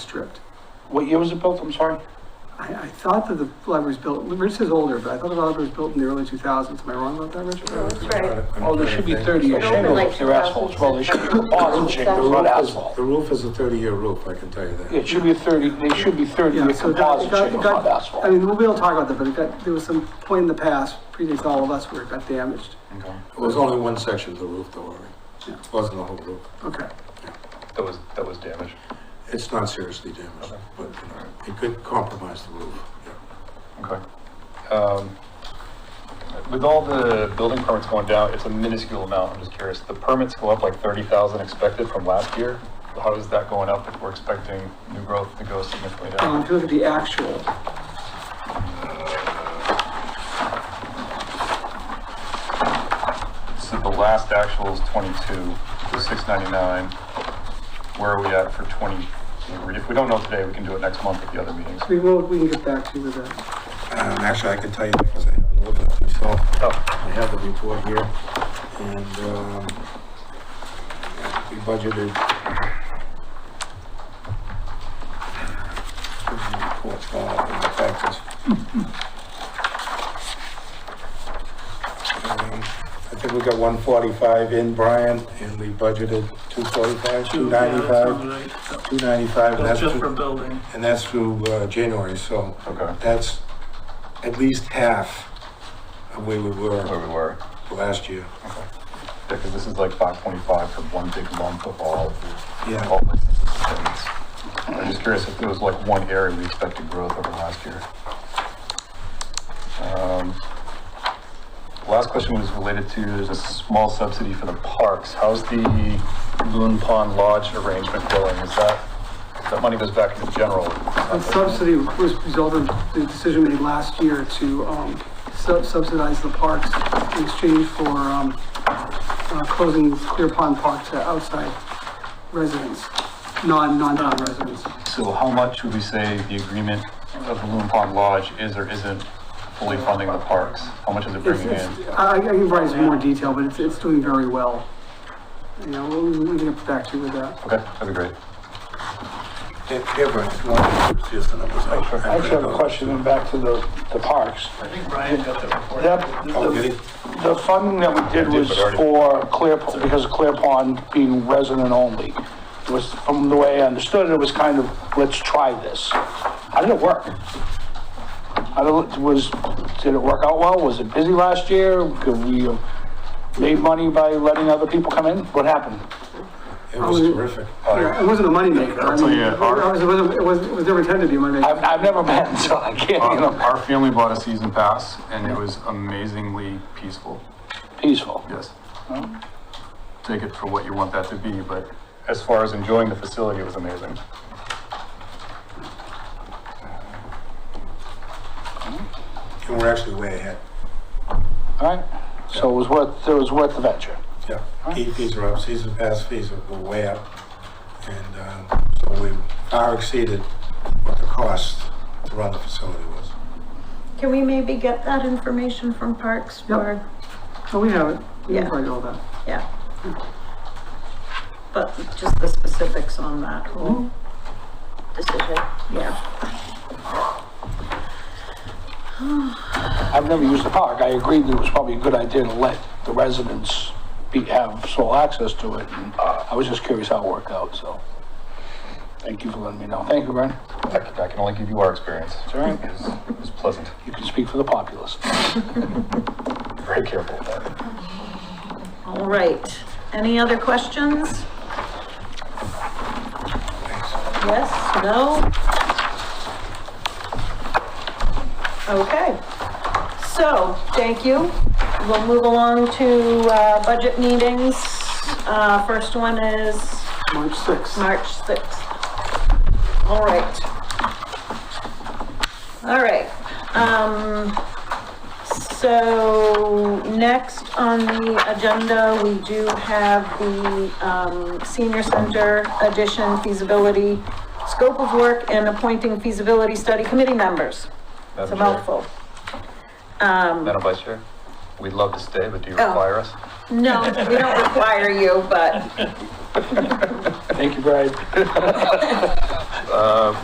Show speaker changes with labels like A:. A: stripped.
B: What year was it built? I'm sorry.
A: I, I thought that the library was built, Rich is older, but I thought the library was built in the early 2000s. Am I wrong about that, Richard?
C: That's right.
B: Oh, there should be 30-year
C: It opened
B: shingles
C: like
B: if they're assholes. Well, there should be composite
C: 2006.
B: shingles, not asphalt.
D: The roof is a thirty-year roof, I can tell you that.
B: It should be a 30, they should be 30-year
A: Yeah, so it got- it
B: composite
A: got- it
B: shingles, not
A: got- I
B: asphalt.
A: mean, we'll be able to talk about that, but it got, there was some point in the past, predates all of us, where it got damaged.
E: Okay.
D: It was only one section of the roof, though, Ari.
A: Yeah.
D: It wasn't the whole roof.
A: Okay.
E: That was, that was damaged.
D: It's not seriously damaged, but you know, it could compromise the roof. yeah.
E: Okay. Um, With all the building permits going down, it's a minuscule amount, I'm just curious. The permits go up like 30,000 expected from last year? How is that going up if we're expecting new growth to go significantly
A: Um,
E: down?
A: if you look at the actual,
E: So the last actual is 22, so 699. Where are we at for 23? If we don't know today, we can do it next month at the other meetings.
A: we will, we can get back to you with that.
D: Um, actually, I can tell you because I haven't looked at it myself.
E: Oh,
D: I have the report here, and, um, we budgeted. Report's gone up in the taxes. Um, I think we got one forty-five in, Brian, and we budgeted two forty-five, two ninety-five, two ninety-five, and that's,
F: Just for
D: through-
F: building.
D: and that's through, uh, January, so
E: okay,
D: that's at least half of where we
E: where
D: were
E: we were.
D: last year.
E: Because this is like 525 for one big month of all
D: Yeah,
E: all businesses and things. I'm just curious if there was like one area we expected growth over last year. Um, Last question was related to, there's a small subsidy for the parks. How's the Loon Pond Lodge arrangement going? Is that, that money goes back into general?
A: The subsidy was resulted, the decision made last year to um, sub- subsidize the parks in exchange for um, uh, closing Clear Pond Park to outside residents, non, non-town residents.
E: So how much would we say the agreement of the Loon Pond Lodge is or isn't fully funding the parks? How much is it
A: It's,
E: bringing in?
A: it's, I, I can provide some more detail, but it's, it's doing very well. You know, we'll, we'll get back to you with that.
E: Okay, that'd be great.
D: it- it was not- it's just the numbers. I
B: I actually have a question, and back to the, the parks.
F: I think Brian got the report.
B: That,
D: Oh, did
B: the,
D: he?
B: the funding that we did was for Clear, because of Clear Pond being resident only. It was, from the way I understood it, it was kind of, let's try this. How did it work? I don't, was, did it work out well? Was it busy last year? Could we have made money by letting other people come in? What happened?
D: It was terrific.
A: Yeah, It wasn't a moneymaker. I mean,
E: yeah, our-
A: It was, it was, it was never intended to be a moneymaker.
B: I've, I've never been, so I can't, you
E: Um,
D: Uh-huh.
B: know,
E: Our family bought a season pass and it was amazingly peaceful,
B: peaceful.
E: yes.
B: Oh.
E: Take it for what you want that to be, but as far as enjoying the facility, it was amazing.
D: And we're actually way ahead.
B: All right, so it was worth, it was worth the venture.
D: Yeah, Key fees are up, season pass fees are way up. And um, so we far exceeded what the cost to run the facility was.
C: Can we maybe get that information from Parks or,
A: So we have it. We can
C: Yeah.
A: provide all that.
C: yeah? But just the specifics on that whole decision, yeah.
B: I've never used the park. I agreed that it was probably a good idea to let the residents be, have sole access to it. and uh, I was just curious how it worked out, so. Thank you for letting me know. Thank you, Brian.
E: I c- I can only give you our experience. It's
B: all right.
E: It was pleasant.
B: You can speak for the populace.
E: Very careful with that.
C: All right, any other questions? Yes, no? Okay, so, thank you. We'll move along to, uh, budget meetings. Uh, first one is
A: March 6th.
C: March 6th. All right. All right. Um, so next on the agenda, we do have the, um, senior center addition feasibility, scope of work and appointing feasibility study committee members. It's a
E: Madam Chair.
C: mouthful. Um,
E: Madam Vice Chair, we'd love to stay, but do you
C: Oh.
E: require us?
C: no, we don't require you, but
B: Thank you, Brian.
E: uh,